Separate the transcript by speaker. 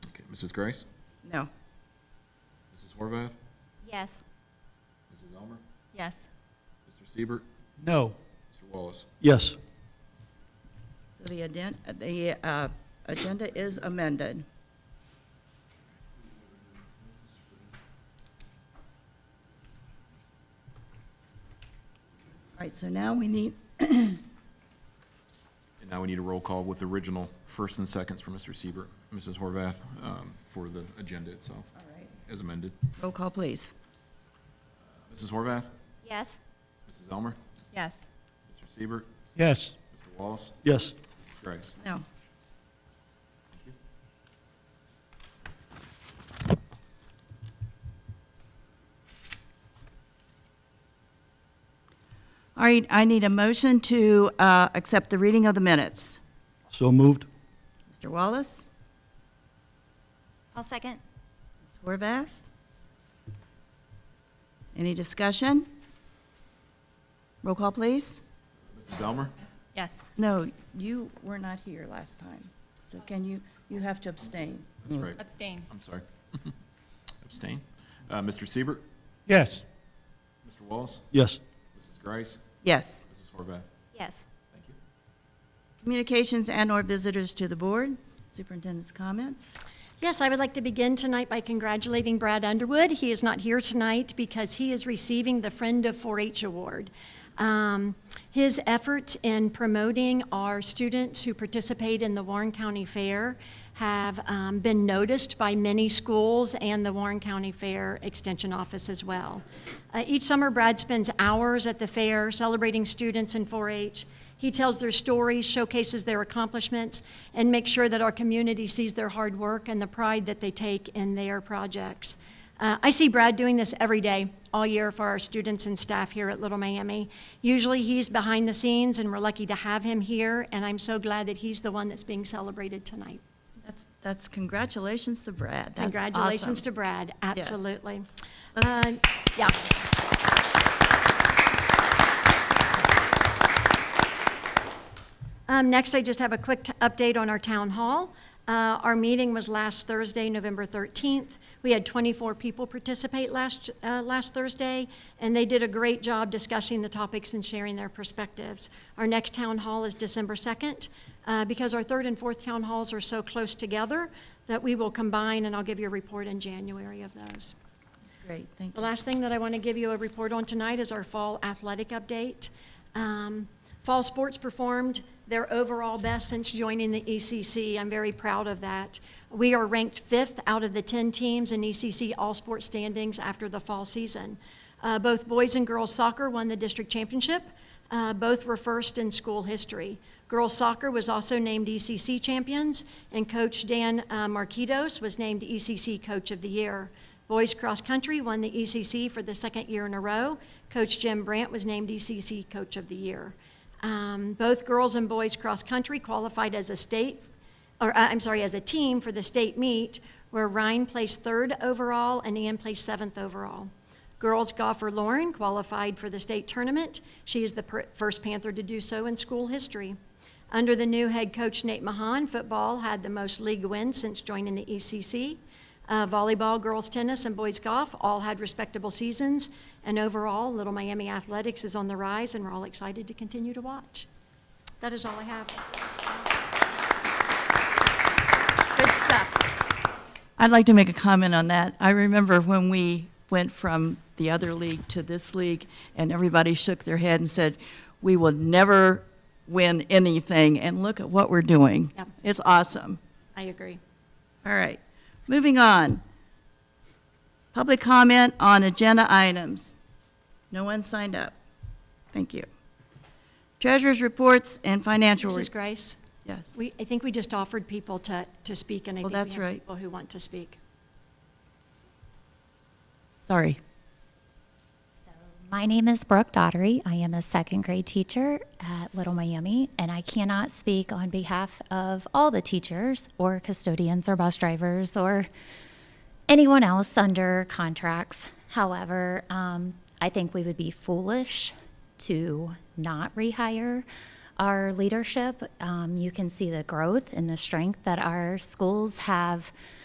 Speaker 1: Mrs. Grace?
Speaker 2: No.
Speaker 1: Mrs. Horvath?
Speaker 3: Yes.
Speaker 1: Mrs. Elmer?
Speaker 2: Yes.
Speaker 1: Mr. Siebert,
Speaker 4: No.
Speaker 1: Mr. Wallace?
Speaker 5: Yes.
Speaker 2: So the aden- the uh, agenda is amended. All right, so now we need,
Speaker 1: And now we need a roll call with original first and seconds for Mr. Siebert, Mrs. Horvath, um, for the agenda itself,
Speaker 2: all right,
Speaker 1: as amended.
Speaker 2: roll call, please.
Speaker 1: Mrs. Horvath?
Speaker 3: Yes.
Speaker 1: Mrs. Elmer?
Speaker 2: Yes.
Speaker 1: Mr. Siebert,
Speaker 4: Yes.
Speaker 1: Mr. Wallace?
Speaker 5: Yes.
Speaker 1: Mrs. Grace?
Speaker 2: No. All right, I need a motion to uh, accept the reading of the minutes.
Speaker 5: So moved.
Speaker 2: Mr. Wallace,
Speaker 3: I'll second.
Speaker 2: Ms. Horvath? Any discussion? Roll call, please.
Speaker 1: Mrs. Elmer?
Speaker 6: Yes.
Speaker 2: No, you were not here last time, so can you, you have to abstain.
Speaker 1: That's right.
Speaker 6: Abstain.
Speaker 1: I'm sorry. Abstain. Uh, Mr. Siebert,
Speaker 4: Yes.
Speaker 1: Mr. Wallace?
Speaker 5: Yes.
Speaker 1: Mrs. Grace?
Speaker 2: Yes.
Speaker 1: Mrs. Horvath?
Speaker 3: Yes.
Speaker 1: Thank you.
Speaker 2: Communications and/or visitors to the board, superintendent's comments.
Speaker 6: Yes, I would like to begin tonight by congratulating Brad Underwood. He is not here tonight because he is receiving the Friend of 4-H Award. Um, His efforts in promoting our students who participate in the Warren County Fair have um, been noticed by many schools and the Warren County Fair Extension Office as well. Uh, Each summer, Brad spends hours at the fair celebrating students in 4-H. He tells their stories, showcases their accomplishments, and makes sure that our community sees their hard work and the pride that they take in their projects. Uh, I see Brad doing this every day, all year, for our students and staff here at Little Miami. Usually, he's behind the scenes, and we're lucky to have him here, and I'm so glad that he's the one that's being celebrated tonight.
Speaker 2: That's, that's congratulations to Brad. That's
Speaker 6: Congratulations
Speaker 2: awesome.
Speaker 6: to Brad, absolutely.
Speaker 2: Let's-
Speaker 6: Uh, Yeah. Um, Next, I just have a quick t- update on our town hall. Uh, Our meeting was last Thursday, November 13th. We had 24 people participate last, uh, last Thursday, and they did a great job discussing the topics and sharing their perspectives. Our next town hall is December 2nd. uh, Because our third and fourth town halls are so close together, that we will combine, and I'll give you a report in January of those.
Speaker 2: Great, thank
Speaker 6: The
Speaker 2: you.
Speaker 6: last thing that I want to give you a report on tonight is our fall athletic update. Um, Fall sports performed their overall best since joining the ECC. I'm very proud of that. We are ranked fifth out of the 10 teams in E ECC all-sport standings after the fall season. Uh, Both boys and girls soccer won the district championship. Uh, Both were first in school history. Girls soccer was also named ECC champions, and Coach Dan uh, Marquitos was named ECC Coach of the Year. Boys cross country won the ECC for the second year in a row. Coach Jim Brandt was named ECC Coach of the Year. Um, Both girls and boys cross country qualified as a state or uh, I'm sorry, as a team for the state meet, where Ryan placed third overall and Ann placed seventh overall. Girls golfer Lauren qualified for the state tournament. She is the per- first Panther to do so in school history. Under the new head coach Nate Mahan, football had the most league wins since joining the ECC. Uh, volleyball, girls tennis, and boys golf all had respectable seasons. And overall, Little Miami athletics is on the rise, and we're all excited to continue to watch. That is all I have.
Speaker 3: Good stuff.
Speaker 2: I'd like to make a comment on that. I remember when we went from the other league to this league, and everybody shook their head and said, "We will never win anything," and look at what we're doing.
Speaker 6: Yep.
Speaker 2: It's awesome.
Speaker 6: I agree.
Speaker 2: All right, moving on. Public comment on agenda items. No one signed up. Thank you. Treasurers' reports and financial.
Speaker 6: Mrs.
Speaker 2: reports.
Speaker 6: Grace,
Speaker 2: Yes.
Speaker 6: we, I think we just offered people to, to speak, and I
Speaker 2: Well,
Speaker 6: think we
Speaker 2: that's
Speaker 6: have
Speaker 2: right.
Speaker 6: people who want to speak.
Speaker 2: Sorry.
Speaker 7: My name is Brooke Dottery. I am a second grade teacher at Little Miami, and I cannot speak on behalf of all the teachers or custodians or bus drivers or anyone else under contracts. However, um, I think we would be foolish to not rehire our leadership. Um, you can see the growth and the strength that our schools have